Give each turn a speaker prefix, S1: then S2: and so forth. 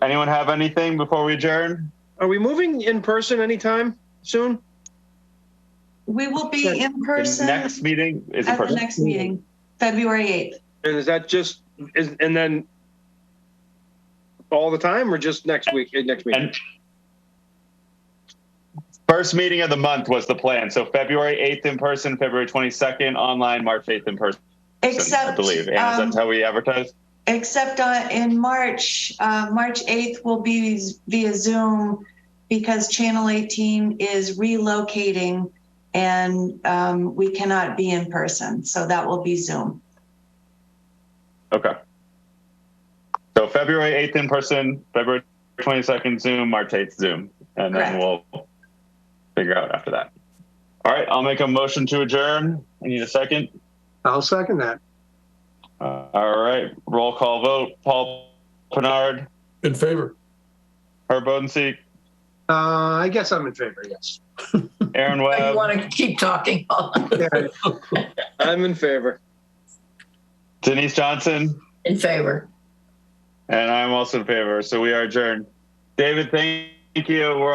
S1: Anyone have anything before we adjourn?
S2: Are we moving in person anytime soon?
S3: We will be
S2: Sure.
S3: in
S1: The
S3: person at
S1: next meeting is in
S3: the
S1: person.
S3: next meeting, February 8th.
S2: And is that just, is, and then all the time or just next week, eh, next meeting?
S1: And first meeting of the month was the plan. So February 8th in person, February 22nd online, March 8th in person, I
S3: Except,
S1: believe. And
S3: um,
S1: that's how we advertise.
S3: except uh, in March, uh, March 8th will be z- via Zoom because Channel 18 is relocating and um, we cannot be in person. So that will be Zoom.
S1: Okay. So February 8th in person, February 22nd Zoom, March 8th Zoom. And then we'll figure out after that. All right, I'll make a motion to adjourn. I need a second.
S4: I'll second that.
S1: Uh, all right, roll call vote. Paul Pinard,
S5: In favor.
S1: Herb Bodenseek,
S4: Uh, I guess I'm in favor, yes.
S1: Aaron
S6: But
S1: Webb,
S6: you want to keep talking.
S4: Yeah,
S2: I'm in favor.
S1: Denise Johnson.
S6: In favor.
S1: And I'm also in favor. So we are adjourned. David, thank you. We're